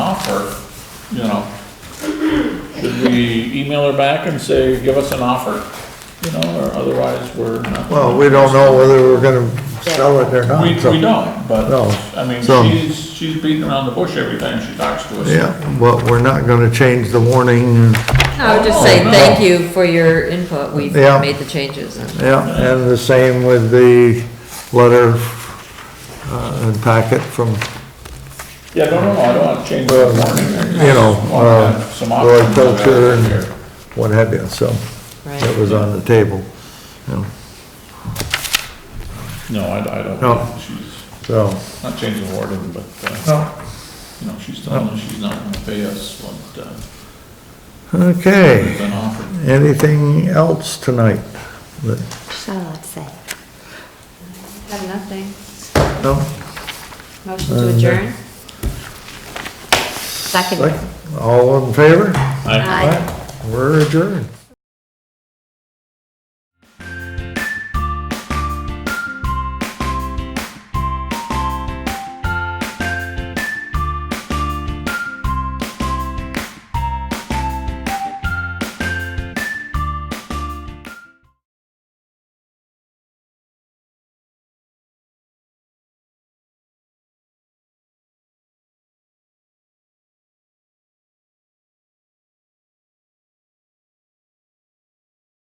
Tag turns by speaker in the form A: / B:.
A: offer, you know. Should we email her back and say, give us an offer, you know, or otherwise we're not.
B: Well, we don't know whether we're gonna sell it or not.
A: We,
B: so-
A: we don't, but,
B: No.
A: I mean,
B: So-
A: she's, she's beating around the bush every time she talks to us.
B: Yeah, but we're not gonna change the warning,
C: I would just
A: Oh,
C: say
A: no.
C: thank you for your input. We've
B: Yeah.
C: made the changes and
B: yeah, and the same with the letter uh, and packet from,
A: Yeah, no, no, no, I don't want to change the warning.
B: you know,
A: Want
B: uh,
A: some options
B: horticulture
A: available
B: and
A: here.
B: what have you, so that
C: Right.
B: was on the table. you know,
A: No, I, I
B: No.
A: don't, she's
B: So,
A: not changing the warning, but, uh,
B: no.
A: you know, she's telling us she's not gonna pay us what, uh,
B: okay,
A: has been offered.
B: anything else tonight? that-
D: Charlotte said.
C: Have nothing.
B: No?
C: Motion
A: Uh,
C: to adjourn?
D: Second.
B: Like, All in favor?
A: I-
D: Aye.
B: We're adjourned.